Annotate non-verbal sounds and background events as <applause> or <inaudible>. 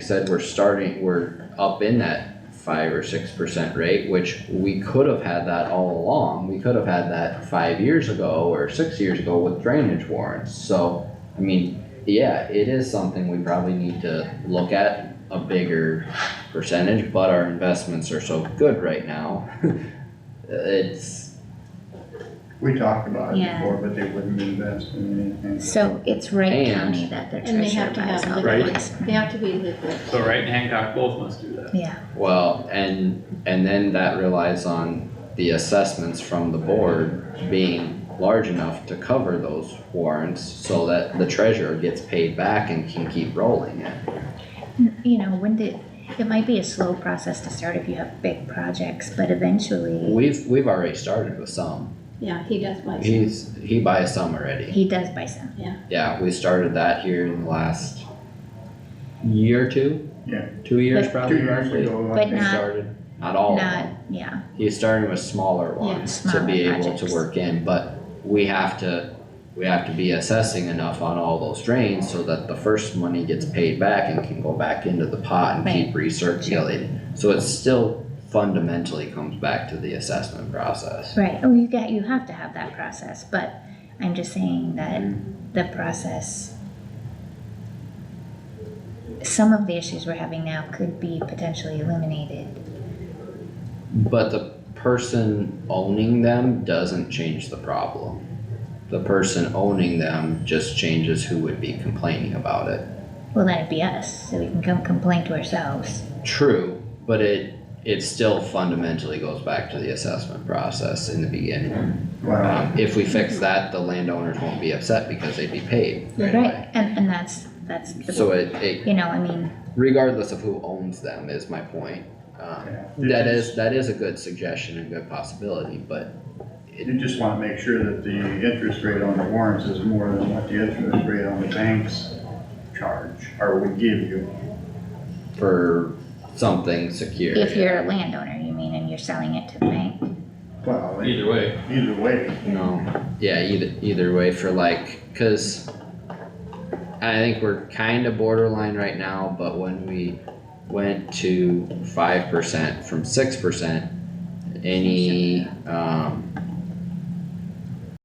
said, we're starting, we're up in that five or six percent rate, which we could have had that all along. We could have had that five years ago or six years ago with drainage warrants, so, I mean, yeah, it is something we probably need to look at a bigger percentage, but our investments are so good right now. <laughs> It's, We talked about it Yeah. before, but they wouldn't invest in anything. So it's Wright And- County that their And they treasurer have to buys have all the the Right. books. They have to be liquid. So Wright and Hancock both must do that. Yeah, well, and, and then that relies on the assessments from the board being large enough to cover those warrants so that the treasurer gets paid back and can keep rolling it. N- you know, when did, it might be a slow process to start if you have big projects, but eventually We've, we've already started with some. Yeah, he does buy some. He's, he buys some already. he does buy some. Yeah, we started that here in the last year or two? Yeah. Two years But- Two probably years roughly. ago, But like, He not- started, not all of them. Not, yeah, He's starting with smaller ones to smaller be able to projects. work in, but we have to, we have to be assessing enough on all those drains so that the first money gets paid back and can go back into the pot and keep recirculating. So it still fundamentally comes back to the assessment process. right, oh, you got, you have to have that process, but I'm just saying that Mm-hmm. the process. Some of the issues we're having now could be potentially eliminated, But the person owning them doesn't change the problem. The person owning them just changes who would be complaining about it. well, then it'd be us, so we can come complain to ourselves. True, but it, it still fundamentally goes back to the assessment process in the beginning. Wow, Um, if we fix that, the landowners won't be upset because they'd be paid right away. Right, and, and that's, that's, the- So it, it, you know, I mean, regardless of who owns them is my point. Um, yeah. You that just- is, that is a good suggestion and good possibility, but You just wanna make sure that the interest rate on the warrants is more than what the interest rate on the banks charge, or would give you. for something secure. if you're a landowner, you mean, and you're selling it to the bank, Well, Either way, either way, No, yeah, either, either way for like, cause I think we're kinda borderline right now, but when we went to five percent from six percent, any, um,